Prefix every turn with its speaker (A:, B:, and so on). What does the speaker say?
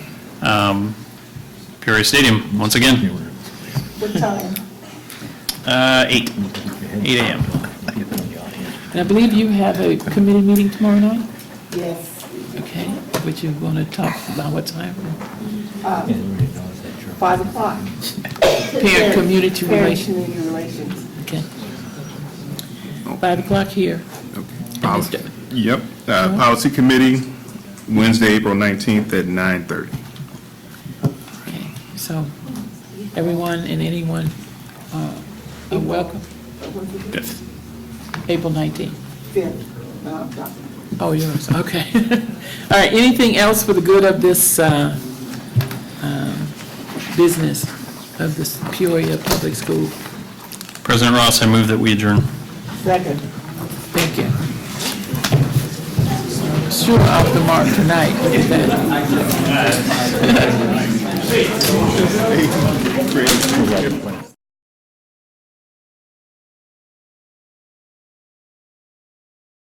A: Um, Peoria Stadium, once again,
B: What time?
A: uh, eight, eight AM.
C: And I believe you have a committee meeting tomorrow night,
B: Yes,
C: okay? Which you're going to talk about what time?
B: five o'clock.
C: Parent community
B: Parent
C: relations,
B: community relations.
C: okay? Five o'clock here.
D: Policy- Yep, uh, Policy Committee, Wednesday, April 19th at 9:30.
C: Okay, So everyone and anyone uh, are welcome,
A: Fifth.
C: April 19th.
B: Fifth, uh, Dr.
C: Oh, yours, okay. All right, anything else for the good of this uh, um, business, of this Peoria Public School?
A: President Ross, I move that we adjourn.
B: Second.
C: Thank you. Sure off the mark tonight, look at that.